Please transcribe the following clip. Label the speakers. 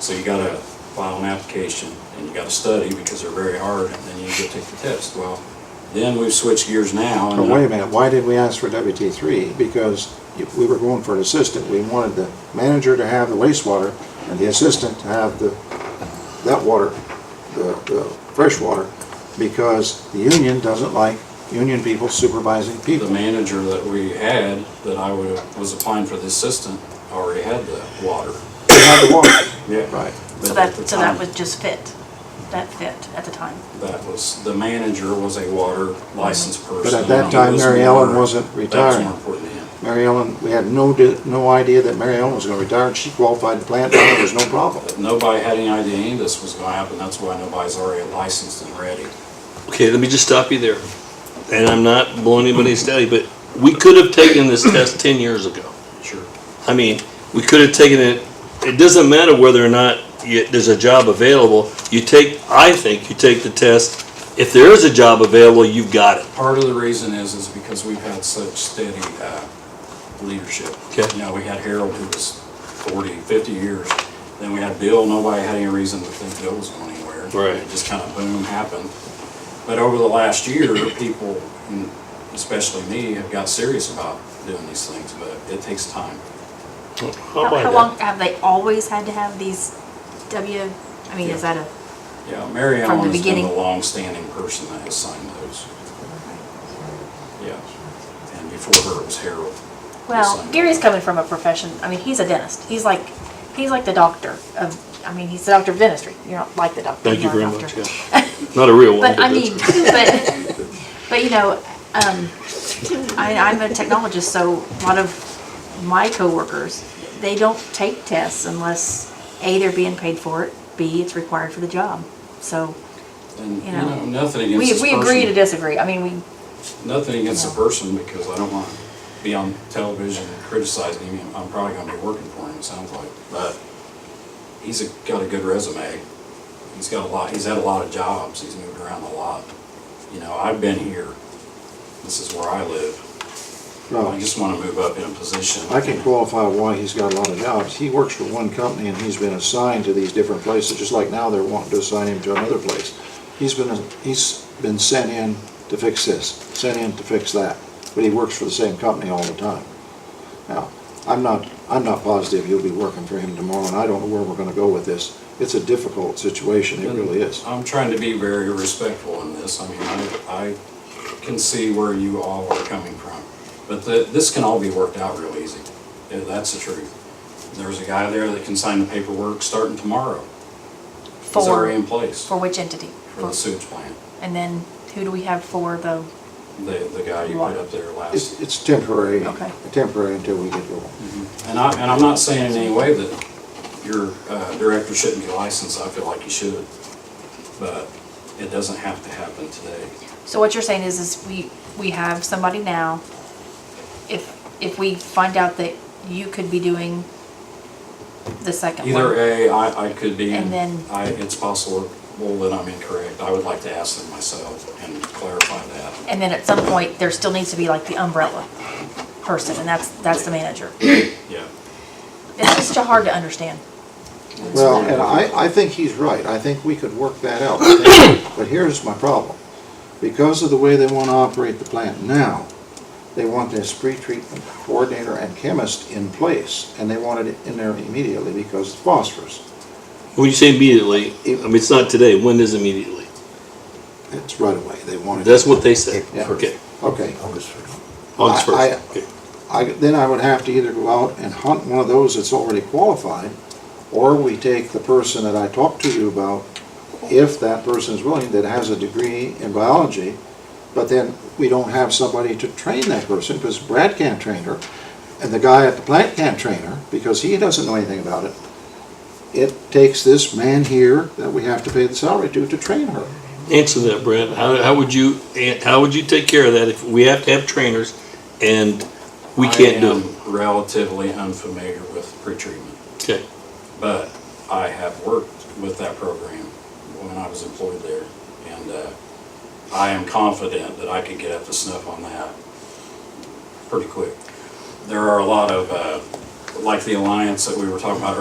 Speaker 1: So you gotta file an application and you gotta study because they're very hard and then you go take the test. Well, then we've switched gears now. and
Speaker 2: But Oh, wait a minute, why did we ask for WT three? Because if we were going for an assistant, we wanted the manager to have the wastewater and the assistant to have the, that water, the, the fresh water, because the union doesn't like union people supervising
Speaker 1: The
Speaker 2: people.
Speaker 1: manager that we had, that I wa- was applying for the assistant, already had the water.
Speaker 2: They have the water.
Speaker 1: Yeah.
Speaker 2: Right.
Speaker 1: But
Speaker 3: So
Speaker 1: at
Speaker 3: that,
Speaker 1: the
Speaker 3: so that
Speaker 1: time,
Speaker 3: would just fit, that fit at the time.
Speaker 1: That was, the manager was a water licensed person.
Speaker 2: But at that
Speaker 1: He
Speaker 2: time,
Speaker 1: was
Speaker 2: Mary Ellen
Speaker 1: more-
Speaker 2: wasn't
Speaker 1: That was
Speaker 2: retired.
Speaker 1: more important to him.
Speaker 2: Mary Ellen, we had no, di- no idea that Mary Ellen was gonna retire, and she qualified to plant, and there was no problem.
Speaker 1: But nobody had any idea any of this was gonna happen. That's why nobody's already licensed and ready.
Speaker 4: Okay, let me just stop you there. And I'm not blowing anybody's daddy, but we could have taken this test ten years ago.
Speaker 1: Sure.
Speaker 4: I mean, we could have taken it, it doesn't matter whether or not you, there's a job available. You take, I think you take the test, if there is a job available, you've got it.
Speaker 1: Part of the reason is, is because we've had such steady uh, leadership.
Speaker 4: Okay.
Speaker 1: You know, we had Harold who was 40, 50 years. Then we had Bill, nobody had any reason to think Bill was going anywhere.
Speaker 4: Right.
Speaker 1: It just kind of boom happened. But over the last year, people, and especially me, have got serious about doing these things, but it takes time.
Speaker 4: I'll
Speaker 5: How,
Speaker 4: buy
Speaker 5: how
Speaker 4: that.
Speaker 5: long, have they always had to have these W, I mean, is that a,
Speaker 1: Yeah, Mary Ellen
Speaker 5: From the
Speaker 1: has been the
Speaker 5: beginning.
Speaker 1: longstanding person that has signed those. Yeah. And before her, it was Harold.
Speaker 5: well,
Speaker 1: Signed.
Speaker 5: Gary's coming from a profession, I mean, he's a dentist, he's like, he's like the doctor of, I mean, he's the doctor of dentistry, you're not like the doctor.
Speaker 4: Thank you
Speaker 5: you're
Speaker 4: very
Speaker 5: not a
Speaker 4: much,
Speaker 5: doctor.
Speaker 4: yeah. Not a real one,
Speaker 5: But I
Speaker 4: but
Speaker 5: mean,
Speaker 4: that's.
Speaker 5: but, but you know, um, I, I'm a technologist, so a lot of my coworkers, they don't take tests unless, A, they're being paid for it, B, it's required for the job. So,
Speaker 1: And, you
Speaker 5: you know,
Speaker 1: know, nothing against
Speaker 5: we,
Speaker 1: this
Speaker 5: we agree
Speaker 1: person.
Speaker 5: to disagree, I mean, we,
Speaker 1: Nothing against the
Speaker 5: No.
Speaker 1: person, because I don't want to be on television criticizing him. I'm probably gonna be working for him, it sounds like. But he's a- got a good resume. He's got a lot, he's had a lot of jobs. He's moved around a lot. You know, I've been here. This is where I live. I
Speaker 2: No,
Speaker 1: just want to move up in a position.
Speaker 2: I can qualify why he's got a lot of jobs. He works for one company and he's been assigned to these different places, just like now they're wanting to assign him to another place. He's been, he's been sent in to fix this, sent in to fix that, but he works for the same company all the time. Now, I'm not, I'm not positive you'll be working for him tomorrow, and I don't know where we're gonna go with this. It's a difficult situation, it really is.
Speaker 1: I'm trying to be very respectful in this. I mean, I, I can see where you all are coming from. But the, this can all be worked out real easy. Yeah, That's the truth. There's a guy there that can sign the paperwork starting tomorrow. He's already in
Speaker 5: for,
Speaker 1: place
Speaker 5: for which entity?
Speaker 1: for the sewage plant.
Speaker 5: And then who do we have for the,
Speaker 1: The, the guy you put up there last.
Speaker 2: It's, it's temporary,
Speaker 5: Okay.
Speaker 2: temporary until we get going.
Speaker 1: And I, and I'm not saying in any way that your uh, director shouldn't be licensed. I feel like he should. But it doesn't have to happen today.
Speaker 5: so what you're saying is, is we, we have somebody now. If, if we find out that you could be doing the second
Speaker 1: Either
Speaker 5: one.
Speaker 1: A, I, I could be,
Speaker 5: And then-
Speaker 1: I, it's possible that I'm incorrect. I would like to ask them myself and clarify that.
Speaker 5: And then at some point, there still needs to be like the umbrella person, and that's, that's the manager.
Speaker 1: Yeah.
Speaker 5: It's just hard to understand.
Speaker 2: Well, and I, I think he's right. I think we could work that out. I think- But here's my problem. Because of the way they want to operate the plant now, they want this pre-treatment coordinator and chemist in place, and they wanted it in there immediately because of phosphorus.
Speaker 4: When you say immediately, I mean, it's not today, when is immediately?
Speaker 2: It's right away. They wanted.
Speaker 4: That's what they said,
Speaker 2: Yeah.
Speaker 4: okay,
Speaker 2: Okay.
Speaker 4: August
Speaker 2: I- I-
Speaker 4: first, okay.
Speaker 2: I, then I would have to either go out and hunt one of those that's already qualified, or we take the person that I talked to you about, if that person is willing, that has a degree in biology, but then we don't have somebody to train that person, because Brad can't train her, and the guy at the plant can't train her, because he doesn't know anything about it. It takes this man here that we have to pay the salary to, to train her.
Speaker 4: Answer that, Brad. How, how would you, eh, how would you take care of that if we have to have trainers and we can't do it?
Speaker 1: I am relatively unfamiliar with pretreatment,
Speaker 4: Okay,
Speaker 1: but I have worked with that program when I was employed there. And, uh, I am confident that I could get up to snuff on that pretty quick. There are a lot of, uh, like the alliance that we were talking about